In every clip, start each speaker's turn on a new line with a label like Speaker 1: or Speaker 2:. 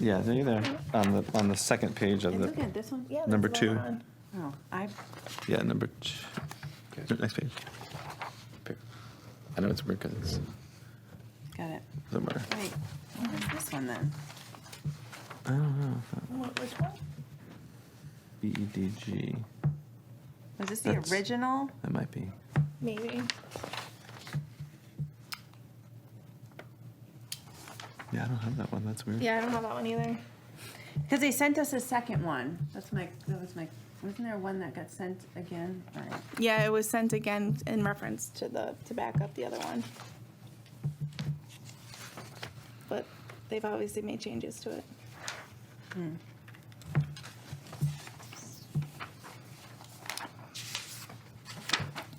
Speaker 1: Yeah, there you there, on the, on the second page of
Speaker 2: And look
Speaker 1: the,
Speaker 2: at this one.
Speaker 3: Yeah,
Speaker 1: Number
Speaker 3: that's the
Speaker 1: two.
Speaker 3: one.
Speaker 2: Oh, I,
Speaker 1: yeah, number two, next page. Here. I know it's weird because it's
Speaker 2: got it.
Speaker 1: somewhere.
Speaker 2: Wait, what is this one then?
Speaker 1: I don't know, if that-
Speaker 3: What was one?
Speaker 1: B E D G,
Speaker 2: Was this the
Speaker 1: That's-
Speaker 2: original?
Speaker 1: that might be.
Speaker 3: Maybe.
Speaker 1: Yeah, I don't have that one, that's weird.
Speaker 3: Yeah, I don't have that one either.
Speaker 2: Because they sent us a second one. That's my, that was my, wasn't there one that got sent again? All right.
Speaker 3: Yeah, it was sent again in reference to the, to back up the other one. But they've obviously made changes to it. Hmm.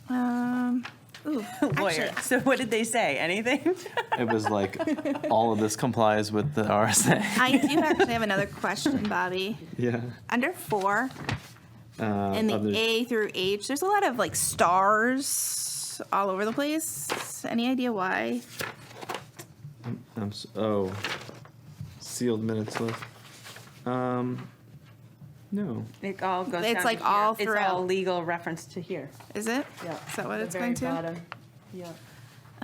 Speaker 3: Um, ooh, actually,
Speaker 2: Lawyer. So what did they say? Anything?
Speaker 1: It was like, all of this complies with the RSA.
Speaker 3: I do actually have another question, Bobby.
Speaker 1: Yeah.
Speaker 3: Under four,
Speaker 1: uh,
Speaker 3: in the
Speaker 1: others-
Speaker 3: A through H, there's a lot of like stars all over the place. Any idea why?
Speaker 1: I'm, s- oh, sealed minutes list. Um, no.
Speaker 2: It all goes
Speaker 3: It's
Speaker 2: down
Speaker 3: like
Speaker 2: to here.
Speaker 3: all
Speaker 2: It's all
Speaker 3: throughout.
Speaker 2: legal reference to here.
Speaker 3: Is it?
Speaker 2: Yeah.
Speaker 3: Is that what
Speaker 2: The
Speaker 3: it's
Speaker 2: very
Speaker 3: going to?
Speaker 2: bottom. Yeah.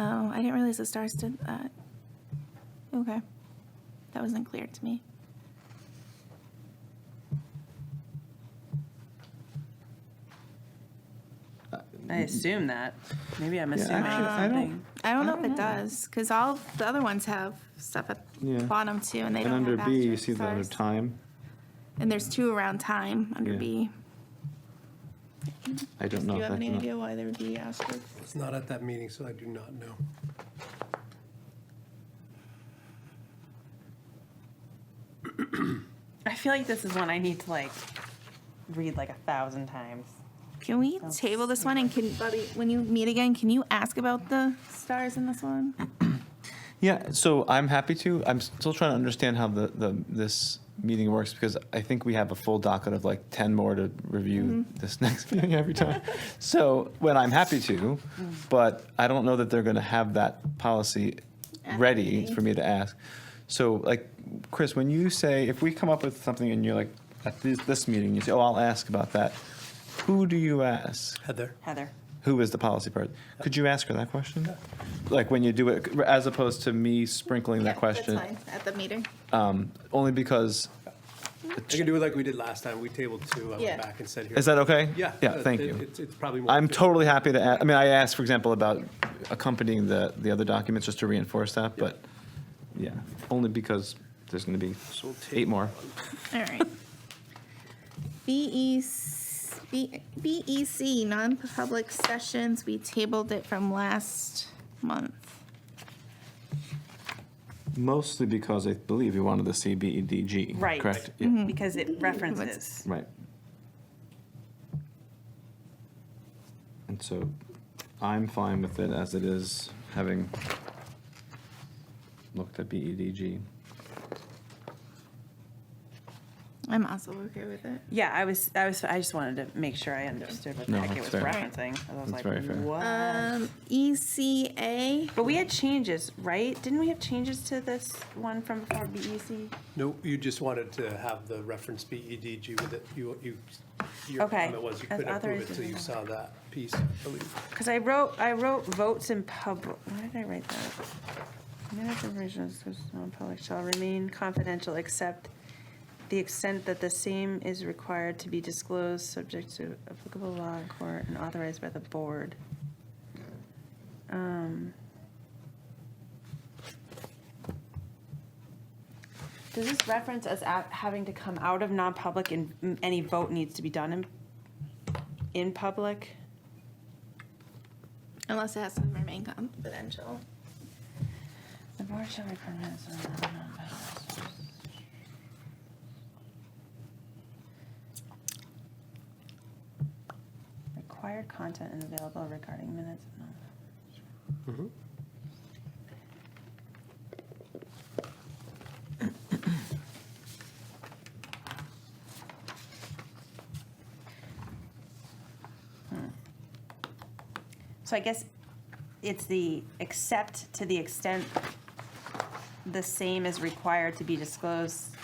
Speaker 3: Oh, I didn't realize the stars did that. Okay. That wasn't clear to me.
Speaker 2: I assume that. Maybe I'm assuming
Speaker 1: actually, I don't-
Speaker 2: something.
Speaker 3: I don't know if
Speaker 1: don't
Speaker 3: it does, because all the other ones have stuff at
Speaker 1: Yeah.
Speaker 3: the bottom too, and they
Speaker 1: And
Speaker 3: don't
Speaker 1: under
Speaker 3: have
Speaker 1: B, you
Speaker 3: asterisk
Speaker 1: see the under
Speaker 3: stars.
Speaker 1: time.
Speaker 3: And there's two around time under
Speaker 1: Yeah.
Speaker 3: B.
Speaker 1: I don't
Speaker 3: Do
Speaker 1: know.
Speaker 3: you
Speaker 1: if
Speaker 3: have
Speaker 1: that's
Speaker 3: any
Speaker 1: not-
Speaker 3: idea why there would be asterisks?
Speaker 4: It's not at that meeting, so I do not know.
Speaker 2: I feel like this is one I need to like read like a thousand times.
Speaker 3: Can we table this one and can, Bobby, when you meet again, can you ask about the stars in this one?
Speaker 1: Yeah, so I'm happy to. I'm still trying to understand how the, the, this meeting works because I think we have a full docket of like 10 more to review
Speaker 3: Mm-hmm.
Speaker 1: this next meeting every time. So when I'm happy
Speaker 3: Mm.
Speaker 1: to, but I don't know that they're going to have that policy
Speaker 3: At the
Speaker 1: ready
Speaker 3: meeting.
Speaker 1: for me to ask. So like, Chris, when you say, if we come up with something and you're like, at this, this meeting, you say, oh, I'll ask about that. Who do you ask?
Speaker 4: Heather?
Speaker 2: Heather.
Speaker 1: who is the policy person? Could you ask her that question? Like when you do it, as opposed to me sprinkling that question?
Speaker 3: At the meeting.
Speaker 1: Only because,
Speaker 4: I can do it like we did last time. We tabled two, I
Speaker 3: Yeah.
Speaker 4: went back and said here.
Speaker 1: is that okay?
Speaker 4: Yeah.
Speaker 1: Yeah, thank
Speaker 4: it-
Speaker 1: you.
Speaker 4: It's, it's probably more.
Speaker 1: I'm totally happy to, a- I mean, I asked, for example, about accompanying the, the other documents, just to reinforce that, but, yeah, only because there's going to be
Speaker 4: So we'll
Speaker 1: eight
Speaker 4: table
Speaker 1: more.
Speaker 3: All right. E BEC, BEC, E non-public sessions, we tabled it from last month.
Speaker 1: Mostly because I believe you wanted to see BEDG,
Speaker 2: Right.
Speaker 1: E, correct? Yeah.
Speaker 2: Because it references.
Speaker 1: Right. And so I'm fine with it as it is, having looked at E BEDG.
Speaker 3: I'm also okay with it.
Speaker 2: Yeah, I was, I was, I just wanted to make sure I understood what the
Speaker 1: No,
Speaker 2: heck it
Speaker 1: that's
Speaker 2: was
Speaker 1: fair.
Speaker 2: referencing. 'cause I
Speaker 1: That's
Speaker 2: was like,
Speaker 1: very fair.
Speaker 2: what?
Speaker 3: Um, ECA,
Speaker 2: But we had changes, right? Didn't we have changes to this one from E before BEC?
Speaker 4: No, you just wanted to have the reference BEDG with it. You, you, your
Speaker 2: Okay.
Speaker 4: comment was you
Speaker 2: As
Speaker 4: couldn't approve
Speaker 2: authorized
Speaker 4: it till you
Speaker 2: by-
Speaker 4: saw that piece, I believe.
Speaker 2: Because I wrote, I wrote votes in public. Why did I write that? Minutes of originals was non-public shall remain confidential except the extent that the same is required to be disclosed, subject to applicable law in court and authorized by the board. Um, Does this reference us at having to come out of non-public and mm, any vote needs to be done in, in public?
Speaker 3: unless it has to remain confidential.
Speaker 2: The board shall be permanent. so no, no, no. Required content is available regarding minutes. no. Hmm. So I guess it's the except to the extent the same is required to be disclosed